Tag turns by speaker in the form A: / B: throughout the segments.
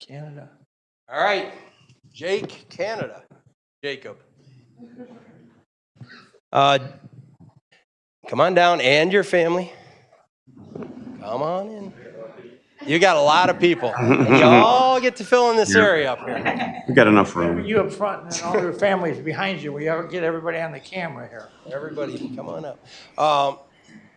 A: Canada. All right, Jake, Canada, Jacob. Uh, Come on down and your family. Come on in. You got a lot of people. and You all get to fill in this area up here.
B: We got enough room.
C: You up front and then all your families behind you. We ought to get everybody on the camera here.
A: Everybody, come on up. Um,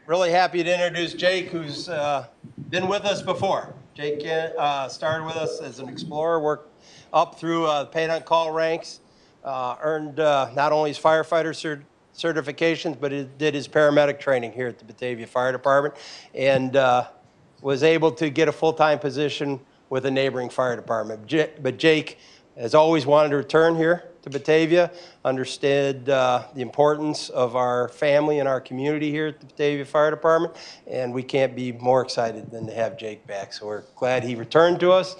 A: Really happy to introduce Jake, who's uh, been with us before. Jake uh, started with us as an explorer, worked up through uh, paid on call ranks, uh, earned uh, not only his firefighter cer- certifications, but he did his paramedic training here at the Batavia Fire Department, and uh, was able to get a full-time position with a neighboring fire department. J- But Jake has always wanted to return here to Batavia, understood uh, the importance of our family and our community here at the Batavia Fire Department, and we can't be more excited than to have Jake back. So we're glad he returned to us,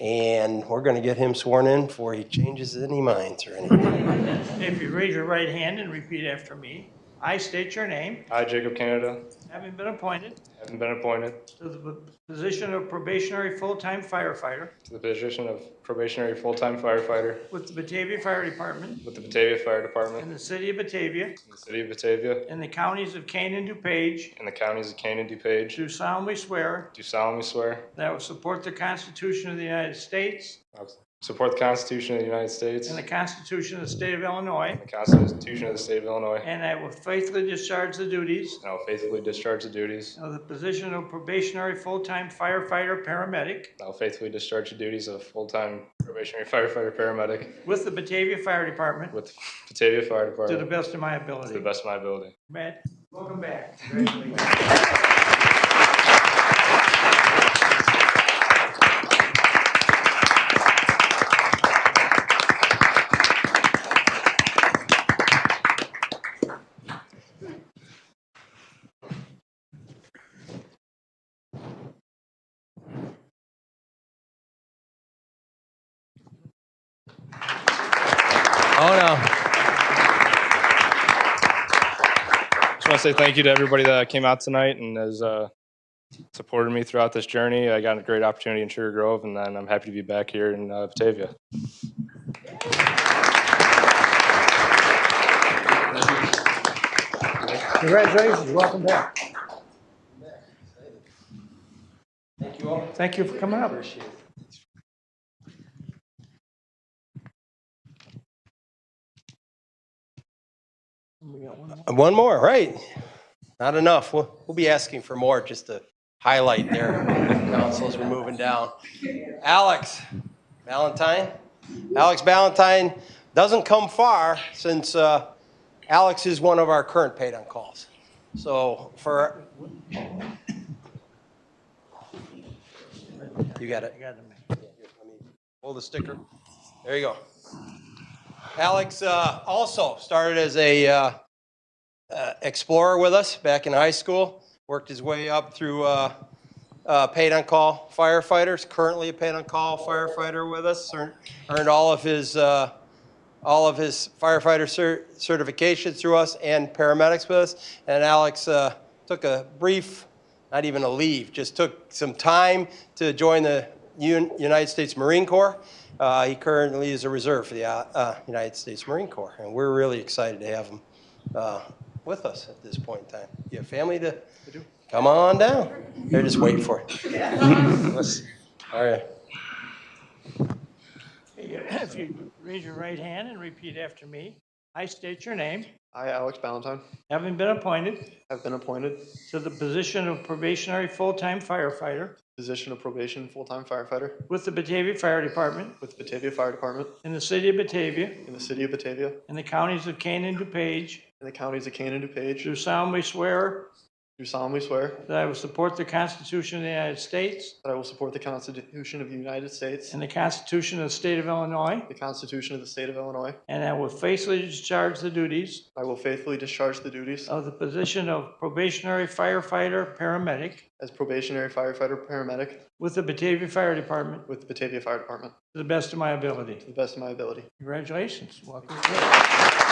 A: and we're going to get him sworn in before he changes any minds or anything.
C: If you raise your right hand and repeat after me, I state your name,
D: I, Jacob Canada,
C: having been appointed
D: having been appointed
C: to the position of probationary full-time firefighter
D: to the position of probationary full-time firefighter
C: with the Batavia Fire Department
D: with the Batavia Fire Department
C: in the city of Batavia
D: in the city of Batavia
C: and the counties of Kane and DuPage,
D: and the counties of Kane and DuPage,
C: do solemnly swear
D: do solemnly swear
C: that I will support the Constitution of the United States
D: I will support the Constitution of the United States
C: and the
D: and
C: Constitution of the State of Illinois,
D: the Constitution of the state of Illinois, and
C: and I will faithfully discharge the duties
D: I will faithfully discharge the duties,
C: of the position of probationary full-time firefighter paramedic
D: I will faithfully discharge the duties of full-time probationary firefighter paramedic
C: with the Batavia Fire Department
D: with Batavia Fire
C: to the
D: Department
C: best of my
D: to the
C: ability.
D: best of my ability.
C: Matt, welcome back.
A: Oh, no.
D: Just want to say thank you to everybody that came out tonight and has uh, supported me throughout this journey. I got a great opportunity in Sugar Grove, and then I'm happy to be back here in uh, Batavia.
C: Congratulations, welcome back.
A: Thank you all.
C: Thank you for coming up.
A: Appreciate it. Uh, One more, right. Not enough. We'll, we'll be asking for more just to highlight there. Councils, we're moving down. Alex Valentine. Alex Valentine doesn't come far since uh, Alex is one of our current paid on calls. So for, you got it.
C: I got them.
A: Let me Pull the sticker. There you go. Alex uh, also started as a uh, uh, explorer with us back in high school. Worked his way up through uh, uh, paid on call firefighters. Currently a paid on call firefighter with us. Earned, earned all of his uh, all of his firefighter cer- certifications through us and paramedics with us. And Alex uh, took a brief, not even a leave, just took some time to join the Un- United States Marine Corps. Uh, he currently is a reserve for the uh, uh, United States Marine Corps, and we're really excited to have him uh, with us at this point in time. You have family to come on down. They're just waiting for it. All right.
C: If you raise your right hand and repeat after me, I state your name,
E: I, Alex Ballantyne,
C: having been appointed
E: have been appointed
C: to the position of probationary full-time firefighter
E: position of probation full-time firefighter
C: with the Batavia Fire Department
E: with Batavia Fire Department
C: in the city of Batavia
E: in the city of Batavia
C: and the counties of Kane and DuPage,
E: in the counties of Kane and DuPage.
C: do solemnly swear
E: Do solemnly swear
C: that I will support the Constitution of the United States
E: that I will support the Constitution of the United States,
C: and the Constitution of the State of Illinois,
E: the Constitution of the State of Illinois.
C: and I will faithfully discharge the duties
E: I will faithfully discharge the duties
C: of the position of probationary firefighter paramedic
E: as probationary firefighter paramedic
C: with the Batavia Fire Department
E: with the Batavia Fire Department
C: to the best of my ability.
E: to the best of my ability.
C: Congratulations. Welcome.